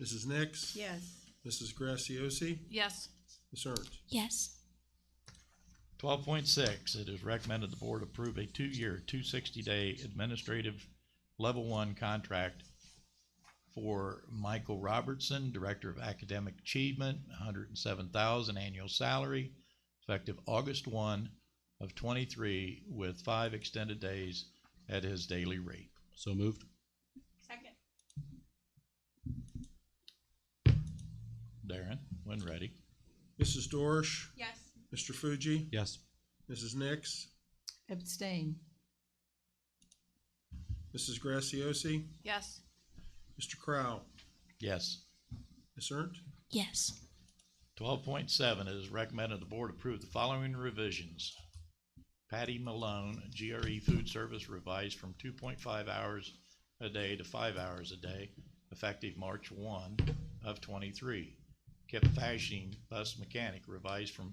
Mrs. Nix? Yes. Mrs. Graciosi? Yes. Ms. Ernst? Yes. Twelve point six, it is recommended the board approve a two-year, two sixty-day administrative level one contract for Michael Robertson, Director of Academic Achievement, hundred and seven thousand annual salary, effective August one of twenty-three with five extended days at his daily rate. So moved. Second. Darren, when ready. Mrs. Dorsch? Yes. Mr. Fuji? Yes. Mrs. Nix? Abstain. Mrs. Graciosi? Yes. Mr. Crowe? Yes. Ms. Ernst? Yes. Twelve point seven, it is recommended the board approve the following revisions. Patty Malone, GRE Food Service revised from two point five hours a day to five hours a day, effective March one of twenty-three. Kip Fashing, Bus Mechanic revised from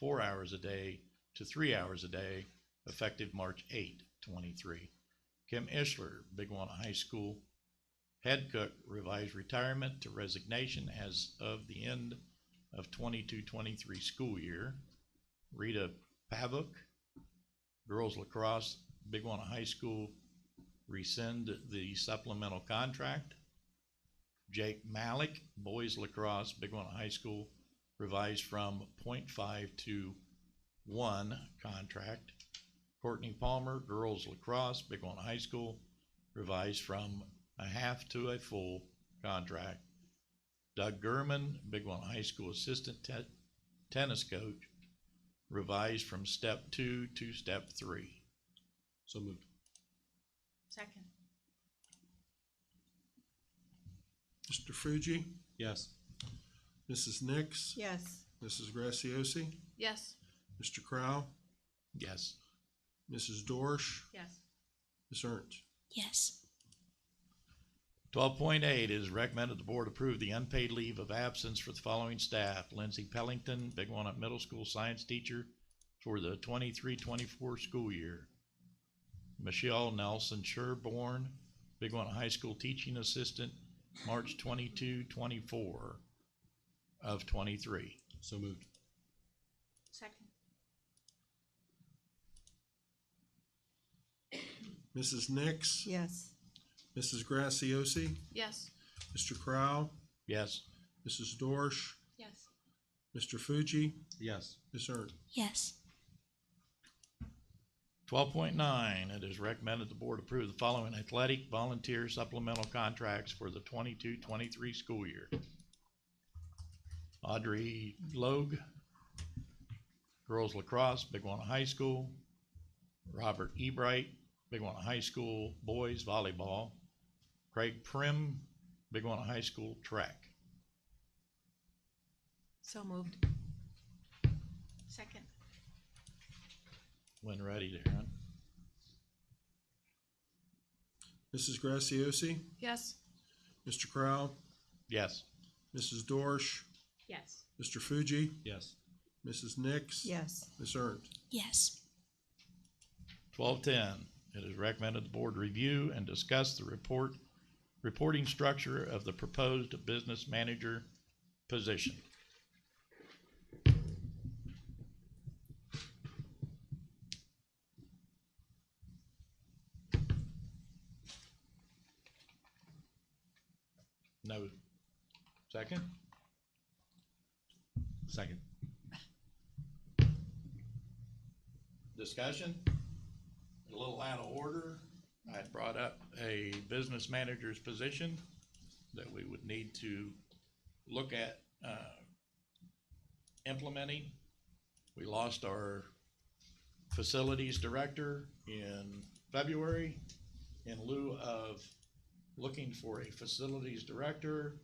four hours a day to three hours a day, effective March 8, 23. Kim Ishler, Big One High School Head Cook revised retirement to resignation as of the end of 22-23 school year. Rita Pavuk, girls lacrosse, Big One High School, rescind the supplemental contract. Jake Malik, boys lacrosse, Big One High School, revised from 0.5 to one contract. Courtney Palmer, girls lacrosse, Big One High School, revised from a half to a full contract. Doug Gurman, Big One High School Assistant te- Tennis Coach, revised from step two to step three. So moved. Second. Mr. Fuji? Yes. Mrs. Nix? Yes. Mrs. Graciosi? Yes. Mr. Crowe? Yes. Mrs. Dorsch? Yes. Ms. Ernst? Yes. Twelve point eight is recommended the board approve the unpaid leave of absence for the following staff. Lindsay Pellington, Big One Up Middle School Science Teacher for the 23-24 school year. Michelle Nelson Sherborne, Big One High School Teaching Assistant, March 22-24 of twenty-three. So moved. Second. Mrs. Nix? Yes. Mrs. Graciosi? Yes. Mr. Crowe? Yes. Mrs. Dorsch? Yes. Mr. Fuji? Yes. Ms. Ernst? Yes. Twelve point nine, it is recommended the board approve the following athletic volunteer supplemental contracts for the 22-23 school year. Audrey Logue, girls lacrosse, Big One High School. Robert Ebright, Big One High School boys volleyball. Craig Prim, Big One High School track. So moved. Second. When ready, Darren. Mrs. Graciosi? Yes. Mr. Crowe? Yes. Mrs. Dorsch? Yes. Mr. Fuji? Yes. Mrs. Nix? Yes. Ms. Ernst? Yes. Twelve ten, it is recommended the board review and discuss the report, reporting structure of the proposed business manager position. No. Second? Second. Discussion? A little out of order. I had brought up a business manager's position that we would need to look at, uh, implementing. We lost our facilities director in February. In lieu of looking for a facilities director,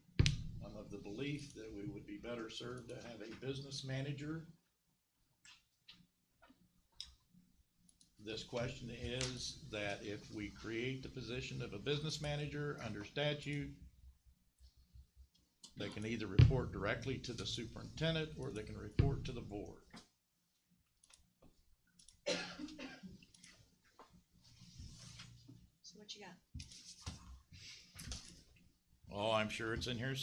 I'm of the belief that we would be better served to have a business manager. This question is that if we create the position of a business manager under statute, they can either report directly to the superintendent or they can report to the board. So what you got? Oh, I'm sure it's in here